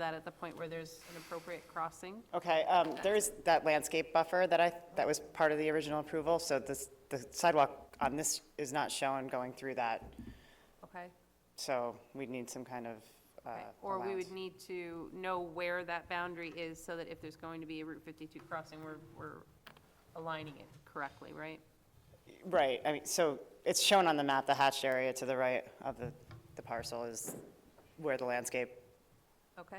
that at the point where there's an appropriate crossing. Okay, um, there is that landscape buffer that I, that was part of the original approval, so this, the sidewalk on this is not shown going through that, Okay. so we'd need some kind of Okay. uh, allowance. Or we would need to know where that boundary is so that if there's going to be a Route 52 crossing, we're, we're aligning it correctly, right? Right, I mean, so it's shown on the map, the hatched area to the right of the, the parcel is where the landscape Okay?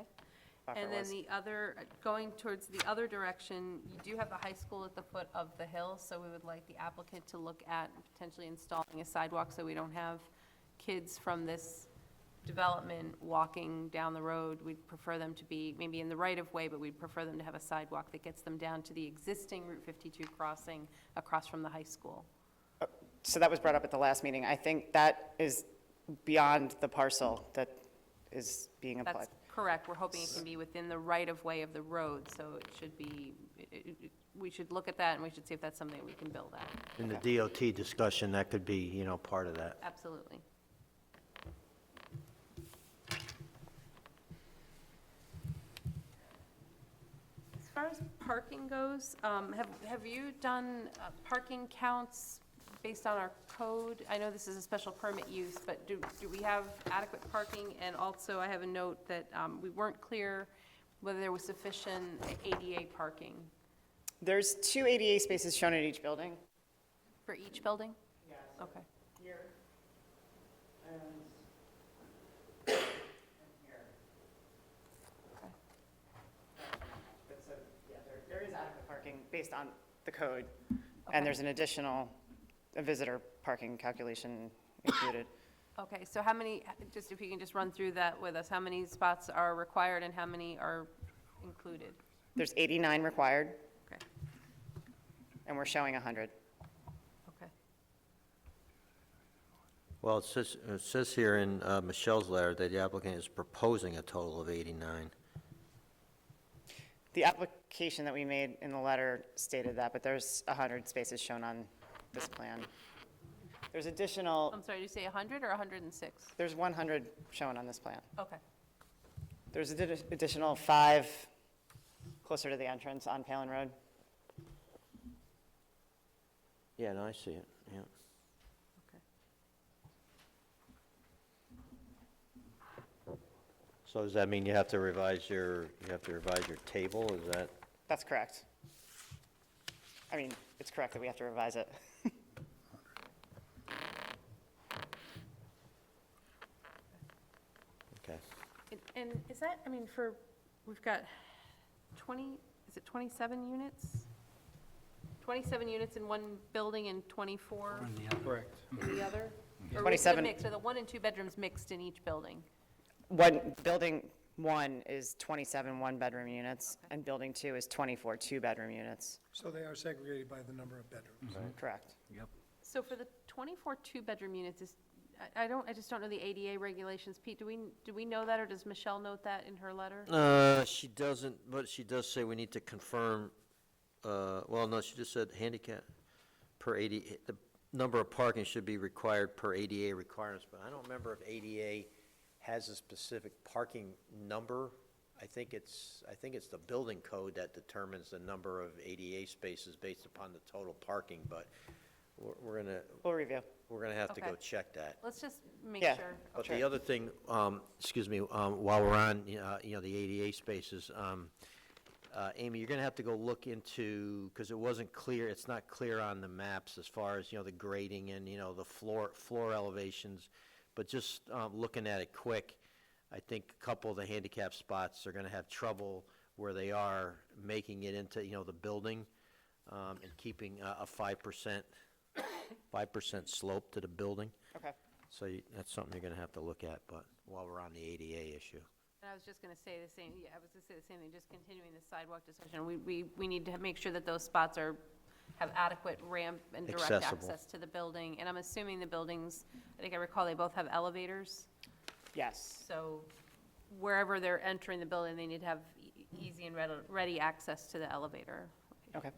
buffer And then was. the other, going towards the other direction, you do have the high school at the foot of the hill, so we would like the applicant to look at potentially installing a sidewalk so we don't have kids from this development walking down the road. We'd prefer them to be maybe in the right-of-way, but we'd prefer them to have a sidewalk that gets them down to the existing Route 52 crossing across from the high school. So that was brought up at the last meeting. I think that is beyond the parcel that is being applied. That's correct. We're hoping it can be within the right-of-way of the road, so it should be, it- it- it- we should look at that and we should see if that's something we can build at. In the DOT discussion, that could be, you know, part of that. Absolutely. As far as parking goes, um, have, have you done uh, parking counts based on our code? I know this is a special permit use, but do, do we have adequate parking? And also, I have a note that um, we weren't clear whether there was sufficient ADA parking There's two ADA spaces shown in each building. for each building? Yes. Okay. But so, yeah, there- there is adequate parking based on the code, and there's an additional uh, visitor parking calculation included. Okay, so how many, just if you can just run through that with us, how many spots are required and how many are included? There's 89 required, Okay, and we're showing 100. okay. Well, it says, it says here in uh, Michelle's letter that the applicant is proposing a total of 89. The application that we made in the letter stated that, but there's 100 spaces shown on this plan. There's additional, I'm sorry, did you say 100 or 106? there's 100 shown on this plan. Okay, There's an additional five closer to the entrance on Palin Road. Yeah, no, I see it, yeah. okay. So does that mean you have to revise your, you have to revise your table, is that? That's correct. I mean, it's correct that we have to revise it. Okay. And- And is that, I mean, for, we've got 20, is it 27 units? 27 units in one building and 24 Correct. in the other? Or is it a 27. mix, are the one and two bedrooms mixed in each building? One, building one is 27 one-bedroom units, and building two is 24 two-bedroom units. So they are segregated by the number of bedrooms. Correct. So for the 24 two-bedroom units, is, I, I don't, I just don't know the ADA regulations. Pete, do we, do we know that, or does Michelle note that in her letter? Uh, she doesn't, but she does say we need to confirm, uh, well, no, she just said handicap per eighty, the number of parking should be required per ADA requirements, but I don't remember if ADA has a specific parking number. I think it's, I think it's the building code that determines the number of ADA spaces based upon the total parking, but we're, we're gonna, We'll review. we're gonna have to go Okay. check that. Let's just make Yeah. sure. But Okay. the other thing, um, excuse me, um, while we're on, uh, you know, the ADA spaces, um, uh, Amy, you're going to have to go look into, because it wasn't clear, it's not clear on the maps as far as, you know, the grading and, you know, the floor, floor elevations, but just um, looking at it quick, I think a couple of the handicap spots are going to have trouble where they are making it into, you know, the building um, and keeping a a 5%, 5% slope to the building. Okay. So you- that's something you're going to have to look at, but while we're on the ADA issue. And I was just gonna say the same, yeah, I was gonna say the same thing, just continuing the sidewalk discussion. We, we, we need to make sure that those spots are, have adequate ramp and direct Accessible. access to the building. And I'm assuming the buildings, I think I recall they both have elevators, Yes. so wherever they're entering the building, they need to have e- easy and ready, ready access to the elevator. Okay.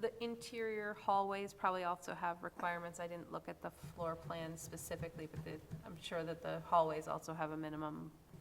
The interior hallways probably also have requirements. I didn't look at the floor plan specifically, but the- I'm sure that the hallways also have a minimum